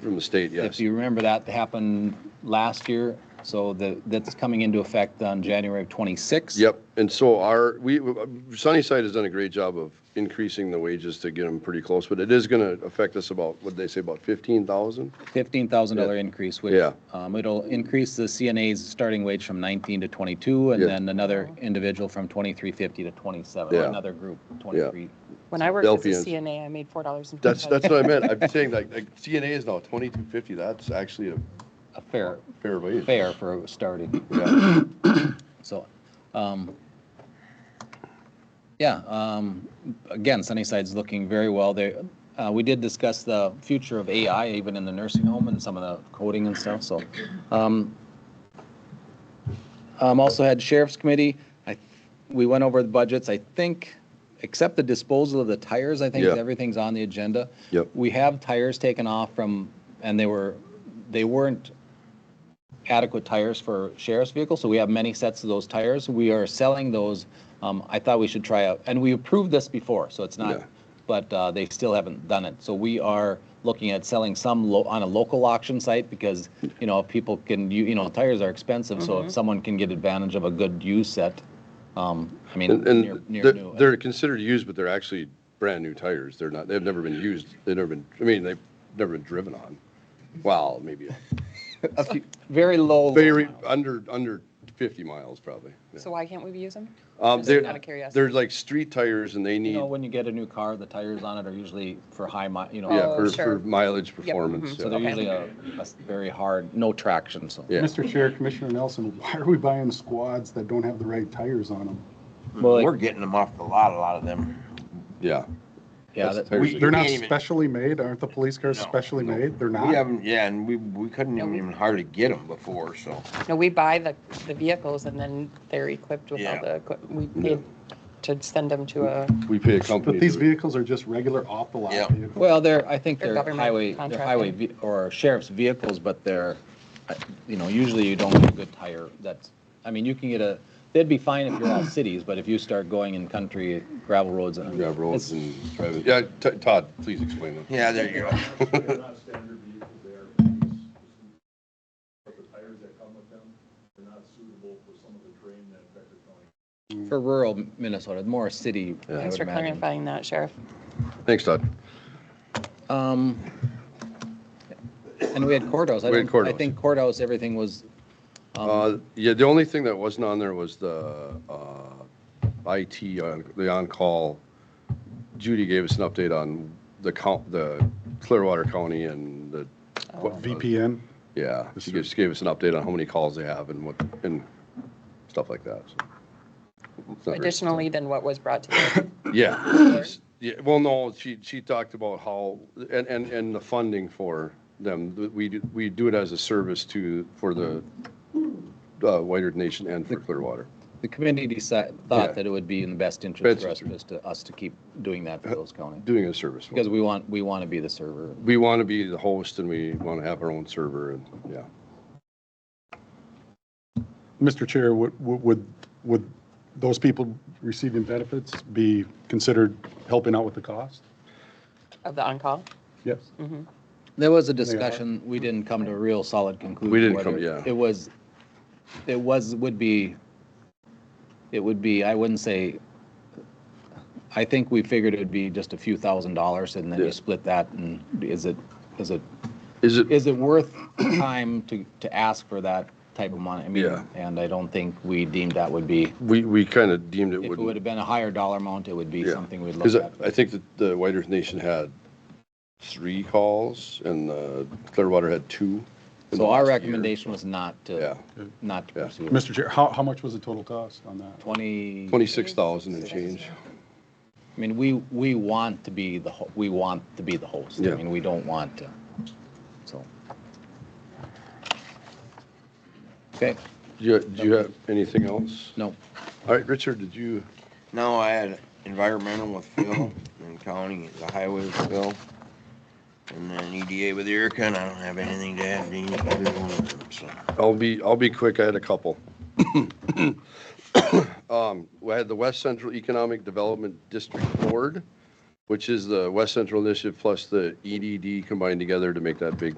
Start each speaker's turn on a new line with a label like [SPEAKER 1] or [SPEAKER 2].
[SPEAKER 1] From the state, yes.
[SPEAKER 2] If you remember, that happened last year, so the, that's coming into effect on January of '26.
[SPEAKER 1] Yep, and so our, we, Sunnyside has done a great job of increasing the wages to get them pretty close, but it is going to affect us about, what'd they say, about 15,000?
[SPEAKER 2] Fifteen thousand dollar increase, which,
[SPEAKER 1] Yeah.
[SPEAKER 2] um, it'll increase the CNA's starting wage from nineteen to twenty-two, and
[SPEAKER 1] Yeah.
[SPEAKER 2] then another individual from twenty-three fifty to twenty-seven, or
[SPEAKER 1] Yeah.
[SPEAKER 2] another group, twenty-three.
[SPEAKER 3] When I worked as a
[SPEAKER 1] Delphi is-
[SPEAKER 3] CNA, I made four dollars and
[SPEAKER 1] That's,
[SPEAKER 3] fifty
[SPEAKER 1] that's
[SPEAKER 3] cents.
[SPEAKER 1] what I meant. I'm saying like, like CNA is now 2250, that's actually a
[SPEAKER 2] A fair,
[SPEAKER 1] fair wage.
[SPEAKER 2] fair for starting,
[SPEAKER 1] Yeah.
[SPEAKER 2] so, um, yeah, um, again, Sunnyside's looking very well there. Uh, we did discuss the future of AI even in the nursing home and some of the coding and stuff, so, um, Um, also had Sheriff's Committee. I, we went over the budgets, I think, except the disposal of the tires, I think
[SPEAKER 1] Yeah.
[SPEAKER 2] everything's on the agenda.
[SPEAKER 1] Yep.
[SPEAKER 2] We have tires taken off from, and they were, they weren't adequate tires for sheriff's vehicles, so we have many sets of those tires. We are selling those. Um, I thought we should try out, and we approved this before, so it's not,
[SPEAKER 1] Yeah.
[SPEAKER 2] but, uh, they still haven't done it. So we are looking at selling some lo- on a local auction site because, you know, if people can, you, you know, tires are expensive, so if someone can get advantage of a good used set, um, I mean,
[SPEAKER 1] And,
[SPEAKER 2] near,
[SPEAKER 1] and
[SPEAKER 2] near
[SPEAKER 1] they're,
[SPEAKER 2] new.
[SPEAKER 1] they're considered used, but they're actually brand-new tires. They're not, they've never been used, they've never been, I mean, they've never been driven on. Well, maybe,
[SPEAKER 2] A few- Very low.
[SPEAKER 1] very, under, under 50 miles probably. yeah.
[SPEAKER 3] So why can't we use them?
[SPEAKER 1] Um,
[SPEAKER 3] Just out
[SPEAKER 1] they're,
[SPEAKER 3] of curiosity.
[SPEAKER 1] they're like street tires and they
[SPEAKER 2] You
[SPEAKER 1] need,
[SPEAKER 2] know, when you get a new car, the tires on it are usually for high mi, you know.
[SPEAKER 1] yeah,
[SPEAKER 3] Oh,
[SPEAKER 1] for,
[SPEAKER 3] sure.
[SPEAKER 1] for mileage
[SPEAKER 3] mhm.
[SPEAKER 1] performance.
[SPEAKER 2] So they're
[SPEAKER 1] yeah.
[SPEAKER 2] usually a, a s- very hard, no traction, so.
[SPEAKER 1] Yeah.
[SPEAKER 4] Mr. Chair, Commissioner Nelson, why are we buying squads that don't have the right tires on them?
[SPEAKER 2] Well, like-
[SPEAKER 5] We're getting them off the lot, a lot of them.
[SPEAKER 1] Yeah.
[SPEAKER 2] Yeah,
[SPEAKER 1] That's
[SPEAKER 2] that-
[SPEAKER 1] tires
[SPEAKER 5] we-
[SPEAKER 1] that-
[SPEAKER 4] They're not
[SPEAKER 5] can't even-
[SPEAKER 4] specially made, aren't the police cars
[SPEAKER 5] No,
[SPEAKER 4] specially
[SPEAKER 5] no.
[SPEAKER 4] made? They're
[SPEAKER 5] We
[SPEAKER 4] not.
[SPEAKER 5] haven't, yeah, and we, we couldn't even even hardly get them before, so.
[SPEAKER 3] No, we buy the, the vehicles and then they're equipped with all
[SPEAKER 5] Yeah.
[SPEAKER 3] the, equip- we paid to send them to a,
[SPEAKER 1] We pay a
[SPEAKER 4] But
[SPEAKER 1] company.
[SPEAKER 4] these
[SPEAKER 1] to-
[SPEAKER 4] vehicles are just regular off the lot
[SPEAKER 5] Yeah.
[SPEAKER 4] vehicles.
[SPEAKER 2] Well, they're, I think
[SPEAKER 3] They're
[SPEAKER 2] they're
[SPEAKER 3] government
[SPEAKER 2] highway, they're
[SPEAKER 3] contracting.
[SPEAKER 2] highway ve- or sheriff's vehicles, but they're, I- you know, usually you don't get a good tire. That's, I mean, you can get a, they'd be fine if you're all cities, but if you start going in country gravel roads and.
[SPEAKER 1] Yeah, roads
[SPEAKER 2] it's-
[SPEAKER 1] and driving. Yeah, T- Todd, please explain that.
[SPEAKER 5] Yeah, there you go.
[SPEAKER 6] They're not standard vehicles, they are police. But the tires that come with them, they're not suitable for some of the terrain that Becker County
[SPEAKER 2] For rural Minnesota, more city, I
[SPEAKER 3] thanks
[SPEAKER 2] would
[SPEAKER 3] for
[SPEAKER 2] imagine.
[SPEAKER 3] clarifying that, Sheriff.
[SPEAKER 1] Thanks, Todd.
[SPEAKER 2] Um, and we had courthouse. I
[SPEAKER 1] We had
[SPEAKER 2] don't, I
[SPEAKER 1] courthouse.
[SPEAKER 2] think courthouse, everything was,
[SPEAKER 1] Uh, yeah, the only thing that wasn't on there was the, uh, IT, on- the on-call. Judy gave us an update on the count, the Clearwater County and the, what-
[SPEAKER 4] VPN,
[SPEAKER 1] yeah, she just gave us an update on how many calls they have and what, and stuff like that, so. It's not very-
[SPEAKER 3] Additionally, than what was brought to you.
[SPEAKER 1] Yeah. Yeah, well, no, she, she talked about how, and, and, and the funding for them, we, do- we do it as a service to, for the, uh, Whiter Nation and for Clearwater.
[SPEAKER 2] the committee decided,
[SPEAKER 1] Yeah.
[SPEAKER 2] thought that it would be in the best interest for us,
[SPEAKER 1] Best Uh,
[SPEAKER 2] just to, us to keep doing that for those counties.
[SPEAKER 1] Doing a service. for
[SPEAKER 2] Because
[SPEAKER 1] them.
[SPEAKER 2] we want, we want to be the server.
[SPEAKER 1] We want to be the host and we want to have our own server and, yeah.
[SPEAKER 4] Mr. Chair, would, would, would those people receiving benefits be considered helping out with the cost?
[SPEAKER 3] Of the on-call?
[SPEAKER 4] Yes.
[SPEAKER 5] Mm-hmm.
[SPEAKER 2] There was a discussion, we didn't come to a real solid conclusion.
[SPEAKER 1] We didn't
[SPEAKER 2] whether
[SPEAKER 1] come- yeah.
[SPEAKER 2] It was, it was, would be, it would be, I wouldn't say, I think we figured it would be just a few thousand dollars and then
[SPEAKER 1] Yeah.
[SPEAKER 2] you split that and is it, is it,
[SPEAKER 1] Is it,
[SPEAKER 2] is it worth time to, to ask for that type of money? I
[SPEAKER 1] Yeah.
[SPEAKER 2] mean, and I don't think we deemed that would be,
[SPEAKER 1] we, we kind of deemed it
[SPEAKER 2] if it would
[SPEAKER 1] wouldn't.
[SPEAKER 2] have been a higher dollar amount, it would be something we'd look
[SPEAKER 1] Because
[SPEAKER 2] at.
[SPEAKER 1] I, I think that the Whiter Nation had three calls and uh, Clearwater had two. in the
[SPEAKER 2] So our
[SPEAKER 1] last year.
[SPEAKER 2] recommendation was not
[SPEAKER 1] Yeah.
[SPEAKER 2] to, not to
[SPEAKER 1] Yeah.
[SPEAKER 2] pursue. it.
[SPEAKER 4] Mr. Chair, how, how much was the total cost on that?
[SPEAKER 2] Twenty.
[SPEAKER 1] Twenty-six thousand and change.
[SPEAKER 2] I mean, we, we want to be the, ho- we want to be the host.
[SPEAKER 1] Yeah.
[SPEAKER 2] I mean, we don't want to, so. Okay,
[SPEAKER 1] Do you, do you have anything else?
[SPEAKER 2] no,
[SPEAKER 1] All right, Richard, did you,
[SPEAKER 5] No, I had environmental with Phil and county, the highway with Phil. And then EDA with Erica, and I don't have anything to add. to either one of them, so.
[SPEAKER 1] I'll be, I'll be quick, I had a couple. Um, We had the West Central Economic Development District E Board, which is the West Central Initiative plus the EDD combined together to make that big